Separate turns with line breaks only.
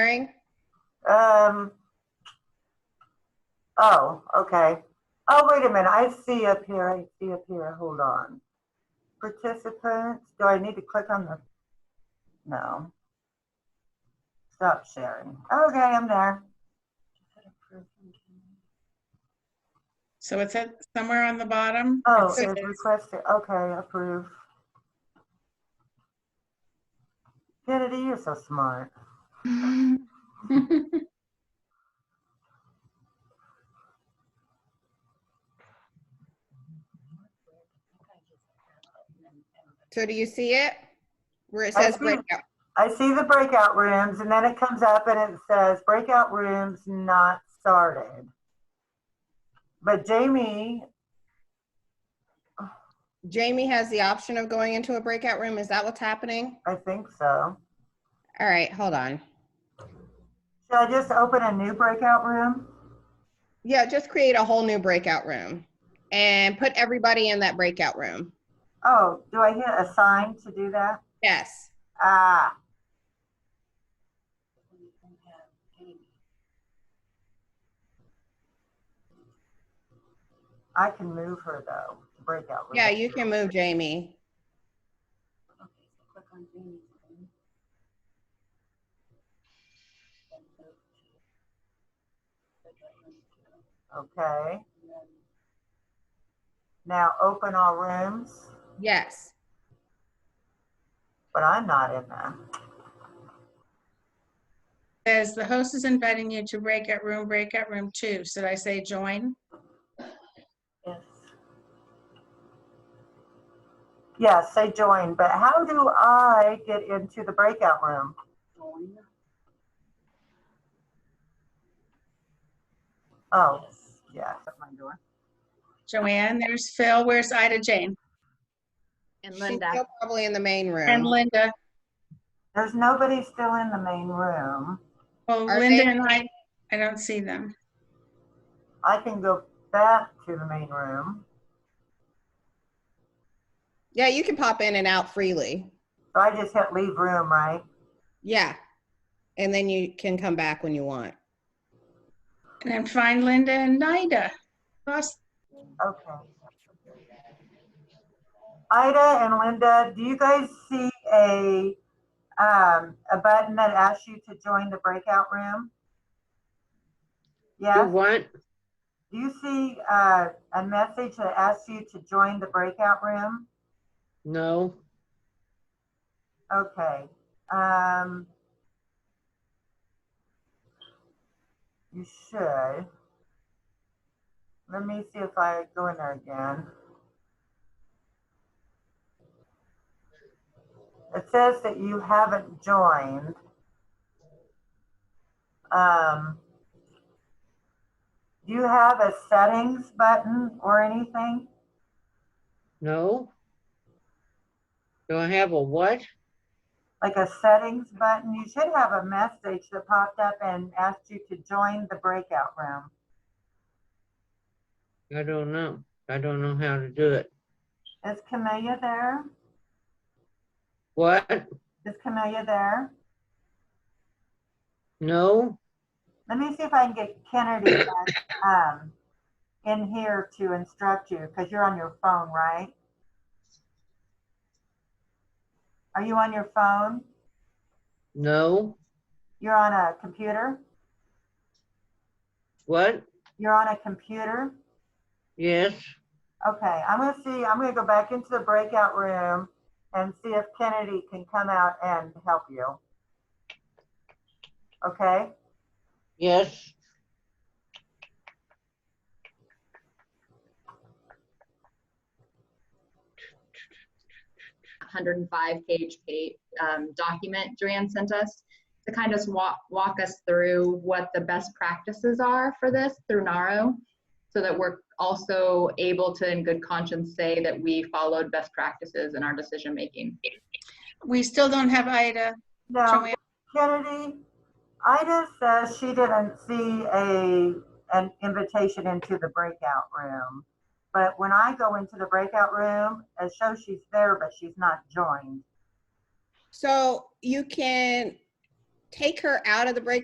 hearing?
Um, oh, okay. Oh, wait a minute, I see up here, I see up here, hold on. Participants, do I need to click on the, no. Stop sharing. Okay, I'm there.
So it's at somewhere on the bottom.
Oh,
It
it's
says-
requested, okay, approve. Kennedy, you're so smart.
So do you see it? Where it
I
says
see.
breakout?
I see the breakout rooms and then it comes up and it says breakout rooms not started. But Jamie,
Jamie has the option of going into a breakout room. Is that what's happening?
I think so.
All right, hold on.
Should I just open a new breakout room?
Yeah, just create a whole new breakout room and put everybody in that breakout room.
Oh, do I hit assign to do that?
Yes.
Ah, I can move her though, to breakout room.
Yeah, you can move Jamie.
Okay. Now open all rooms,
Yes.
but I'm not in there.
it Says the host is inviting you to breakout room, breakout room two. Should I say join?
Yes. Yeah, say join, but how do I get into the breakout room? Oh, yeah. at my door.
Joanne, there's Phil. Where's Ida Jane?
And
She's
Linda,
still probably in the main
And
room.
Linda.
There's nobody still in the main room.
Well,
Are
Linda
they-
and I, I don't see them.
I can go back to the main room.
Yeah, you can pop in and out freely.
So I just hit leave room, right?
Yeah. And then you can come back when you want.
And then find Linda and Ida. Lost-
Okay. Ida and Linda, do you guys see a, um, a button that asks you to join the breakout room?
You
Yeah,
want,
do you see, uh, a message that asks you to join the breakout room?
no,
Okay, um. You should. Let me see if I go in there again. It says that you haven't joined. Um. Do you have a settings button or anything?
no. Do I have a what?
like a settings button, you should have a message that popped up and asked you to join the breakout room.
I don't know. I don't know how to do it.
Is Camelia there?
What?
Is Camelia there?
No,
Let me see if I can get Kennedy back, um, in here to instruct you, because you're on your phone, right? Are you on your phone?
no,
You're on a computer?
what?
You're on a computer?
Yes,
Okay, I'm gonna see, I'm gonna go back into the breakout room and see if Kennedy can come out and help you. Okay,
yes,
hundred and five page pa- um, document Joanne sent us to kind of walk, walk us through what the best practices are for this through NARO. So that we're also able to in good conscience say that we followed best practices in our decision making.
We still don't have Ida.
now
Joanne,
Kennedy, Ida says she didn't see a, an invitation into the breakout room. But when I go into the breakout room, it shows she's there, but she's not joined.
So you can take her out of the breakout